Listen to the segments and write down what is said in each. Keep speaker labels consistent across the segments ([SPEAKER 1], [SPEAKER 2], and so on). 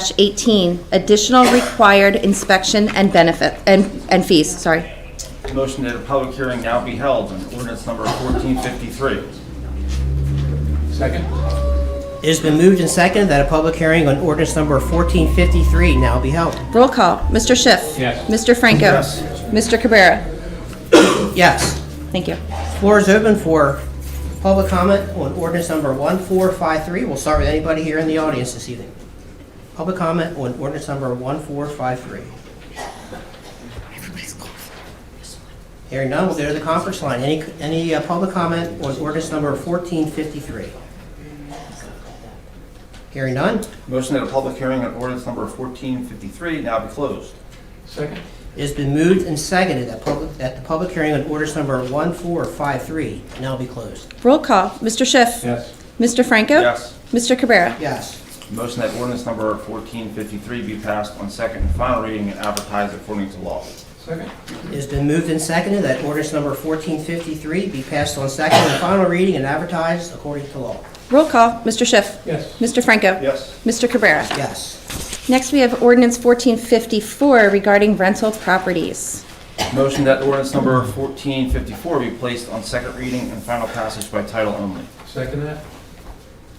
[SPEAKER 1] 35-18, additional required inspection and benefit, and, and fees, sorry.
[SPEAKER 2] Motion that a public hearing now be held on ordinance number 1453.
[SPEAKER 3] Second?
[SPEAKER 4] It has been moved and seconded that a public hearing on ordinance number 1453 now be held.
[SPEAKER 1] Roll call, Mr. Schiff.
[SPEAKER 3] Yes.
[SPEAKER 1] Mr. Franco.
[SPEAKER 2] Yes.
[SPEAKER 1] Mr. Cabrera.
[SPEAKER 4] Yes.
[SPEAKER 1] Thank you.
[SPEAKER 4] Floor is open for public comment on ordinance number 1453. We'll start with anybody here in the audience this evening. Public comment on ordinance number 1453. Hearing none, we'll go to the conference line. Any, any uh, public comment on ordinance number 1453? Hearing none,
[SPEAKER 2] Motion that a public hearing on ordinance number 1453 now be closed.
[SPEAKER 3] Second?
[SPEAKER 4] it has been moved and seconded that public, that the public hearing on ordinance number 1453 now be closed.
[SPEAKER 1] Roll call, Mr. Schiff.
[SPEAKER 3] Yes.
[SPEAKER 1] Mr. Franco.
[SPEAKER 2] Yes.
[SPEAKER 1] Mr. Cabrera.
[SPEAKER 4] Yes.
[SPEAKER 2] Motion that ordinance number 1453 be passed on second and final reading and advertised according to law.
[SPEAKER 3] Second?
[SPEAKER 4] It has been moved and seconded that ordinance number 1453 be passed on second and final reading and advertised according to law.
[SPEAKER 1] Roll call, Mr. Schiff.
[SPEAKER 3] Yes.
[SPEAKER 1] Mr. Franco.
[SPEAKER 2] Yes.
[SPEAKER 1] Mr. Cabrera.
[SPEAKER 4] Yes.
[SPEAKER 1] Next, we have ordinance 1454 regarding rental properties.
[SPEAKER 2] Motion that ordinance number 1454 be placed on second reading and final passage by title only.
[SPEAKER 3] Second that?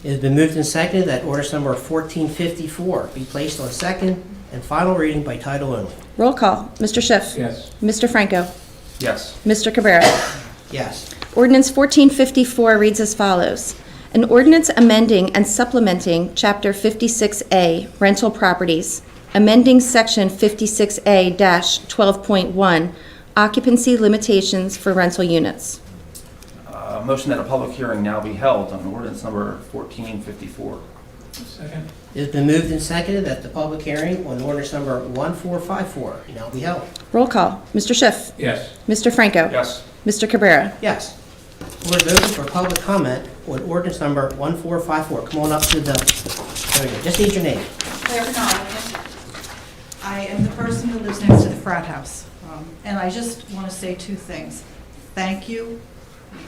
[SPEAKER 4] It has been moved and seconded that ordinance number 1454 be placed on second and final reading by title only.
[SPEAKER 1] Roll call, Mr. Schiff.
[SPEAKER 3] Yes.
[SPEAKER 1] Mr. Franco.
[SPEAKER 2] Yes.
[SPEAKER 1] Mr. Cabrera.
[SPEAKER 4] Yes.
[SPEAKER 1] Ordinance 1454 reads as follows. An ordinance amending and supplementing Chapter 56A Rental Properties, amending Section 56A-12.1 Occupancy Limitations for Rental Units.
[SPEAKER 2] Uh, Motion that a public hearing now be held on ordinance number 1454.
[SPEAKER 3] Second?
[SPEAKER 4] It has been moved and seconded that the public hearing on ordinance number 1454 now be held.
[SPEAKER 1] Roll call. Mr. Schiff.
[SPEAKER 3] Yes.
[SPEAKER 1] Mr. Franco.
[SPEAKER 2] Yes.
[SPEAKER 1] Mr. Cabrera.
[SPEAKER 4] Yes. Floor is open for public comment on ordinance number 1454. Come on up to the, there we go. Just need your name.
[SPEAKER 5] Claire Connolly. I am the person who lives next to the frat house. Um, And I just want to say two things. Thank you.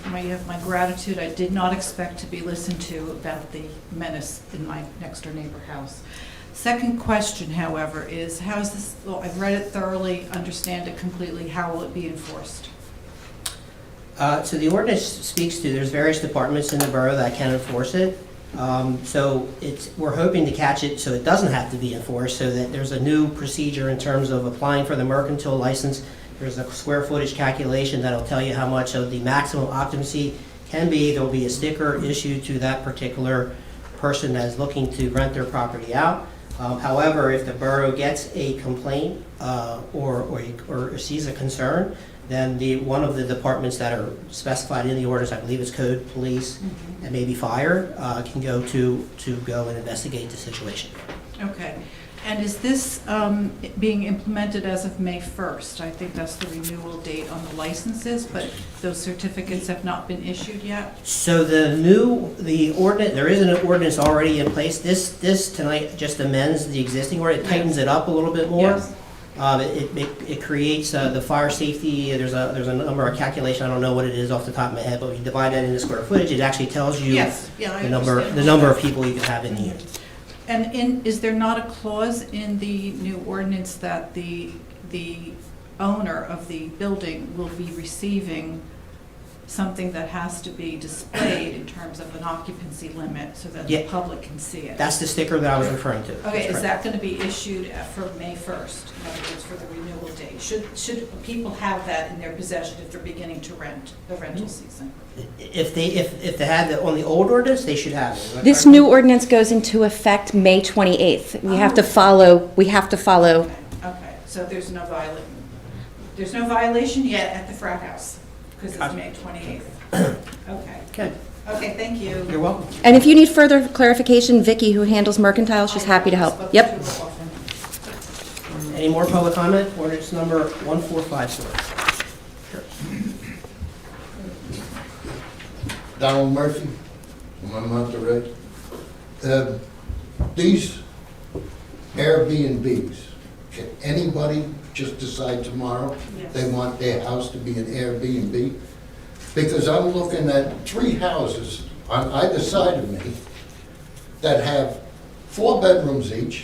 [SPEAKER 5] My- You have my gratitude. I did not expect to be listened to about the menace in my next-door neighbor house. Second question, however, is how is this, well, I've read it thoroughly, understand it completely. How will it be enforced?
[SPEAKER 4] Uh, So the ordinance speaks to, there's various departments in the borough that can enforce it. Um, So it's, we're hoping to catch it so it doesn't have to be enforced, so that there's a new procedure in terms of applying for the mercantile license. There's a square footage calculation that'll tell you how much of the maximum occupancy can be. There'll be a sticker issued to that particular person that is looking to rent their property out. Um, However, if the borough gets a complaint uh, or or or sees a concern, then the, one of the departments that are specified in the orders, I believe is code, police, and maybe fire, uh, can go to, to go and investigate the situation.
[SPEAKER 5] Okay. And is this um, being implemented as of May 1st? I think that's the renewal date on the licenses, but those certificates have not been issued yet?
[SPEAKER 4] So the new, the ordinance, there is an ordinance already in place. This, this tonight just amends the existing ordinance, tightens it up a little bit more.
[SPEAKER 5] Yes.
[SPEAKER 4] Um, It, it it creates uh, the fire safety, there's a, there's a number, a calculation, I don't know what it is off the top of my head, but when you divide that into square footage, it actually tells you
[SPEAKER 5] Yes, yeah, I
[SPEAKER 4] the number,
[SPEAKER 5] understand.
[SPEAKER 4] the number of people you can have in the unit.
[SPEAKER 5] And in, is there not a clause in the new ordinance that the, the owner of the building will be receiving something that has to be displayed in terms of an occupancy limit so that the
[SPEAKER 4] Yeah.
[SPEAKER 5] public can see it?
[SPEAKER 4] That's the sticker that I was referring to.
[SPEAKER 5] Okay,
[SPEAKER 4] That's
[SPEAKER 5] is
[SPEAKER 4] correct.
[SPEAKER 5] that going to be issued at- for May 1st, in other words, for the renewal date? Should, should people have that in their possession if they're beginning to rent, the
[SPEAKER 1] Mm-hmm.
[SPEAKER 5] rental season?
[SPEAKER 4] If they, if, if they had the, on the old ordinance, they should have it. Is that
[SPEAKER 1] This
[SPEAKER 4] correct?
[SPEAKER 1] new ordinance goes into effect May 28th. We have to follow, we have to follow.
[SPEAKER 5] Okay, Okay, so there's no viola, there's no violation yet at the frat house, because it's May 28th. Okay,
[SPEAKER 4] Okay,
[SPEAKER 5] okay, thank you.
[SPEAKER 4] you're welcome.
[SPEAKER 1] And if you need further clarification, Vicky, who handles mercantile, she's happy to help. Yep.
[SPEAKER 4] Any more public comment? Ordinance number 1454.
[SPEAKER 6] Donald Murphy, from One Month Road. Uh, These Airbnbs, can anybody just decide tomorrow
[SPEAKER 5] Yes.
[SPEAKER 6] they want their house to be an Airbnb? Because I'm looking at three houses on either side of me that have four bedrooms each.